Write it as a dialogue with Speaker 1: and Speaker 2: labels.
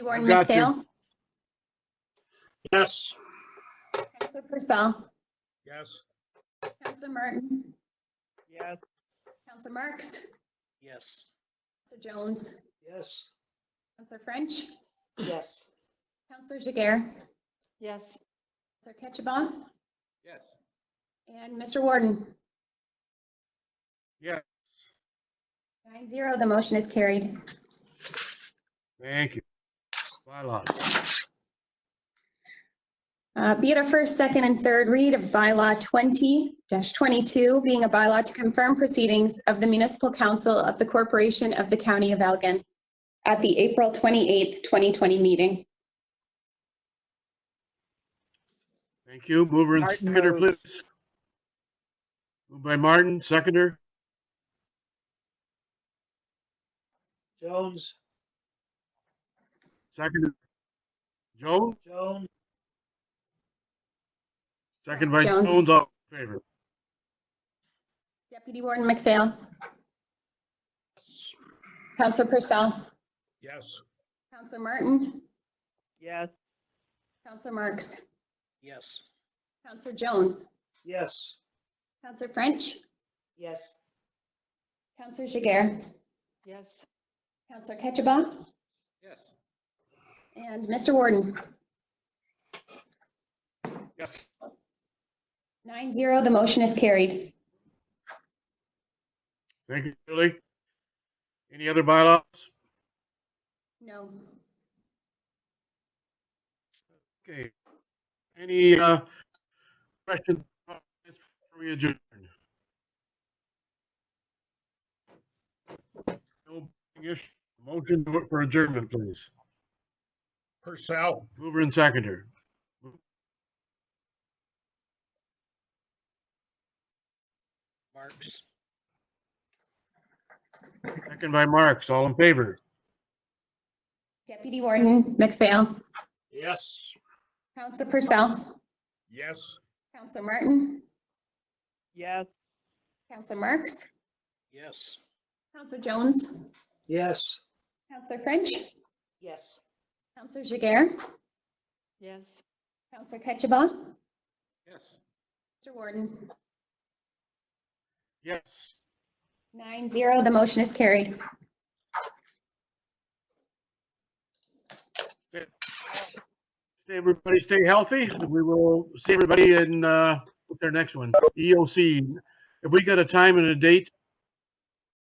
Speaker 1: Warden
Speaker 2: I've got you.
Speaker 1: McPhail,
Speaker 2: Yes.
Speaker 1: Counselor Purcell,
Speaker 2: Yes.
Speaker 1: Counselor Martin,
Speaker 3: Yes.
Speaker 1: Counselor Marks,
Speaker 2: Yes.
Speaker 1: Counselor Jones,
Speaker 2: Yes.
Speaker 1: Counselor French,
Speaker 3: Yes.
Speaker 1: Counselor Jiguer,
Speaker 3: Yes.
Speaker 1: Counselor Ketchabah,
Speaker 2: Yes.
Speaker 1: and Mr. Warden.
Speaker 2: Yes.
Speaker 1: Nine zero, the motion is carried.
Speaker 2: Thank you. Bylaws.
Speaker 1: Uh, Be it a first, second, and third read of bylaw 20-22, being a bylaw to confirm proceedings of the municipal council of the corporation of the county of Elgin at the April 28th, 2020 meeting.
Speaker 2: Thank you. Mover and
Speaker 3: Martin
Speaker 2: seconder,
Speaker 3: moved.
Speaker 2: please. Moved by Martin, seconder.
Speaker 4: Jones,
Speaker 2: Second. Jones,
Speaker 4: Jones,
Speaker 2: second by
Speaker 1: Jones.
Speaker 2: Jones, all in favor.
Speaker 1: Deputy Warden McPhail. Counselor Purcell.
Speaker 2: Yes.
Speaker 1: Counselor Martin.
Speaker 3: Yes.
Speaker 1: Counselor Marks.
Speaker 2: Yes.
Speaker 1: Counselor Jones.
Speaker 4: yes.
Speaker 1: Counselor French.
Speaker 3: Yes.
Speaker 1: Counselor Jiguer.
Speaker 3: Yes.
Speaker 1: Counselor Ketchabah.
Speaker 2: Yes.
Speaker 1: And Mr. Warden.
Speaker 2: Yes.
Speaker 1: Nine zero, the motion is carried.
Speaker 2: Thank you, Julie. Any other bylaws?
Speaker 1: No.
Speaker 2: Okay. Any, uh, questions? comments before We adjourn. No issue. Motion for adjournment, please.
Speaker 5: Purcell,
Speaker 2: Mover and seconder.
Speaker 5: Marks,
Speaker 2: Second by Marks. All in favor?
Speaker 1: Deputy Warden McPhail.
Speaker 2: Yes.
Speaker 1: Counselor Purcell.
Speaker 5: yes.
Speaker 1: Counselor Martin.
Speaker 3: Yes.
Speaker 1: Counselor Marks.
Speaker 5: Yes.
Speaker 1: Counselor Jones.
Speaker 4: Yes.
Speaker 1: Counselor French.
Speaker 3: Yes.
Speaker 1: Counselor Jiguer.
Speaker 3: Yes.
Speaker 1: Counselor Ketchabah.
Speaker 5: Yes.
Speaker 1: Mr. Warden.
Speaker 2: Yes.
Speaker 1: Nine zero, the motion is carried.
Speaker 2: Stay, everybody stay healthy. We will E see everybody in, uh, their next one, EOC. If we got a time and a date,